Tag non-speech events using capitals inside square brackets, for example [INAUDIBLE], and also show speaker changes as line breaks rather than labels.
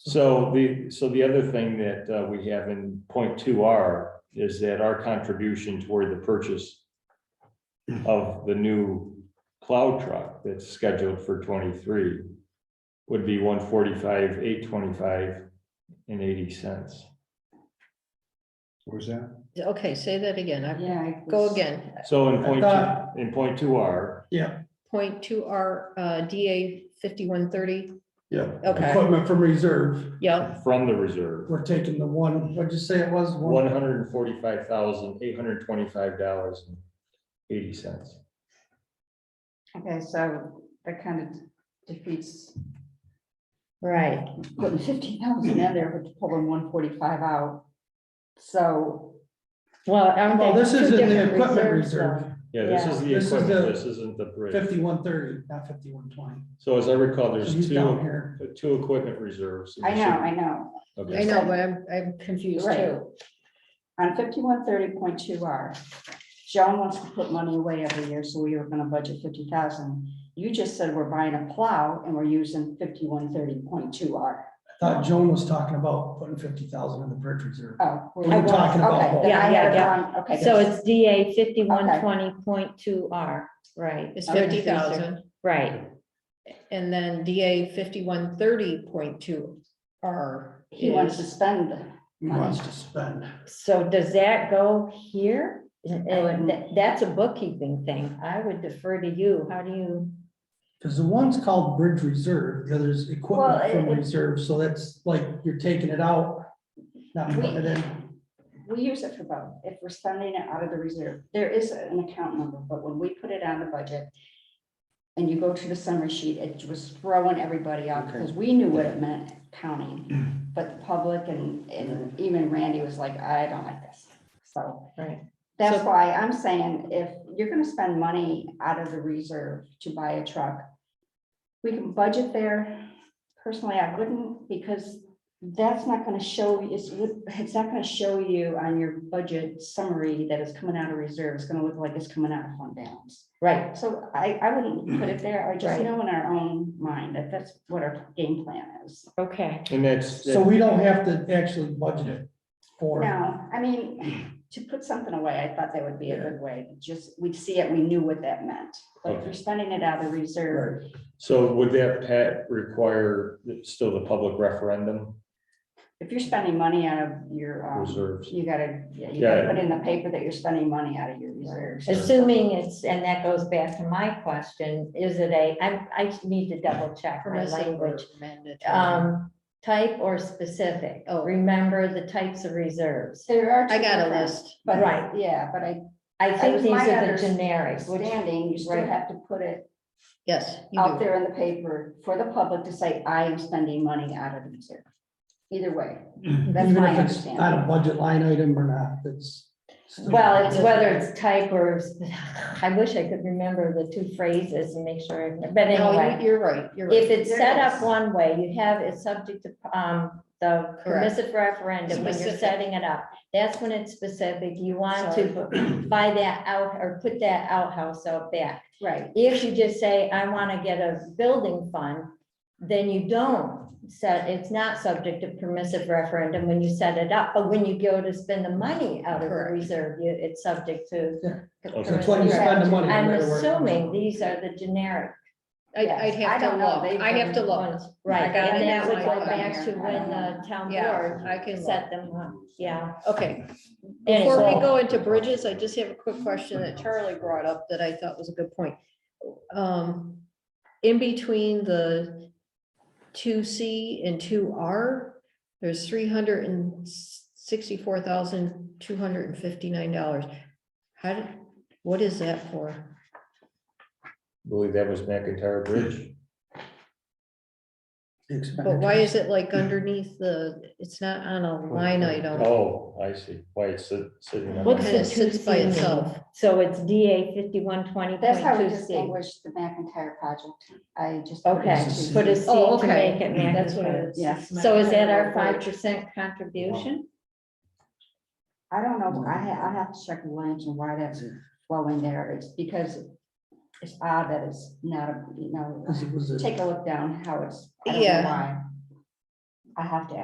So the, so the other thing that uh, we have in point two R is that our contribution toward the purchase of the new plow truck that's scheduled for twenty-three would be one forty-five, eight twenty-five and eighty cents.
Where's that?
Okay, say that again. I
Yeah. I
go
was-
again.
So in point,
thought-
two- in point two R,
Yeah,
Point two R, uh, DA fifty-one thirty.
yeah.
Okay,
Equipment from reserve,
yeah,
from the reserve,
we're taking the one, what'd you say it was?
one hundred and forty-five thousand, eight hundred and twenty-five dollars and eighty cents.
Okay, so that kind of defeats
right.
putting fifteen thousand in there, but pulling one forty-five out. So,
Well,
Well, this is in the equipment reserve,
reserve,
Yeah, this is the
This is
equipment,
the
this isn't the bridge.
fifty-one thirty, not fifty-one twenty.
So as I recall, there's
He's down
two, uh,
here.
two equipment reserves.
I know, I know,
I
Okay,
know, but I'm, I'm confused
right.
too.
On fifty-one thirty point two R, Joan wants to put money away every year, so we were gonna budget fifty thousand. You just said we're buying a plow and we're using fifty-one thirty point two R.
I Thought Joan was talking about putting fifty thousand in the bridge reserve.
Oh.
We're talking about
okay,
both.
then I
Yeah,
had it
yeah,
wrong. Okay.
So it's DA fifty-one twenty point two R, right,
It's
Okay.
fifty thousand
right.
and then DA fifty-one thirty point two R.
He wants to spend.
He wants to spend.
So does that go here?
wouldn't-
And that- that's a bookkeeping thing. I would defer to you. How do you?
Because the one's called bridge reserve, the other's
Well,
equipment
it-
from
it-
reserve, so that's like you're taking it out. Not putting it in.
We use it for both. If we're spending it out of the reserve, there is an account number, but when we put it on the budget and you go to the summary sheet, it was throwing everybody out because we knew what it meant counting. But the public and, and even Randy was like, I don't like this. So
Right.
that's
So-
why I'm saying if you're gonna spend money out of the reserve to buy a truck, we can budget there. Personally, I wouldn't because that's not gonna show, it's, it's not gonna show you on your budget summary that it's coming out of reserve. It's gonna look like it's coming out of fund balance.
Right,
So I, I wouldn't put it there. I just
Right.
know in our own mind that that's what our game plan is.
okay.
and that's,
So we don't have to actually budget it for.
No, I mean, to put something away, I thought that would be a good way. Just, we'd see it, we knew what that meant. But if you're spending it out of the reserve,
Right.
so would that, Pat, require still the public referendum
if you're spending money out of your, um,
reserves?
you gotta, yeah, you gotta
Yeah.
put in the paper that you're spending money out of your reserves.
Assuming it's, and that goes back to my question, is it a, I, I need to double check my
Permissive or
language.
mandatory.
Um, type or specific?
Oh.
Remember the types of reserves.
There are.
I
two
got a
different-
list.
But,
Right.
yeah, but I
I think
was-
these
my
are the generics, which
standing, you still
Right.
have to put it
Yes. you
out
do.
there in the paper for the public to say, I am spending money out of the reserve. Either way, That's
Even
my
if it's Not a
understanding.
budget line item or not, it's. still-
Well, it's whether it's type or, [LAUGHS] I wish I could remember the two phrases and make sure, I- but
No,
anyway.
you- you're right, you're right.
If it's
There
set
is.
up one way, you have, it's subject to, um, the
Correct.
permissive referendum when you're
Specific.
setting it up. That's when it's specific, you want to
Sorry.
buy that out or put that outhouse out back.
right,
If you just say, I want to get a building fund, then you don't set, it's not subject to permissive referendum when you set it up. But when you go to spend the money out of the
Correct.
reserve, you, it's subject to.
Yeah.
Okay.
That's why you spend the money. no
I'm
matter where it comes
assuming
from.
these are the generic
I,
yes.
I'd
I
have to
don't know,
look,
they've
I have to
been
look.
ones, right?
got
And
it
that
in
would
my
go
phone
back to
here.
when the town
Yeah,
board
I can look.
set them up, yeah.
Okay,
Anyway,
before we go into bridges, I just have a quick question that Charlie brought up that I thought was a good point. Um, in between the two C and two R, there's three hundred and sixty-four thousand, two hundred and fifty-nine dollars. How did, what is that for?
Believe that was McIntyre Bridge.
The
But
expenditure.
why is it like underneath the, it's not on a line item?
Oh, I see. Why it's sit- sitting on.
What's
And
the-
it sits by itself.
So it's DA fifty-one twenty
that's how we
point two C.
distinguish the McIntyre project. I just. put
Okay,
these two.
put a C
Oh,
to
okay.
make it
That's what
mandatory.
it is.
Yes.
So is that our five percent contribution?
I don't know, I, ha- I have to check the language and why that's flowing there, it's because it's odd that it's not, a you know,
[LAUGHS]
Because it was a-
take a look down how it's, I don't know
Yeah.
why.
I have to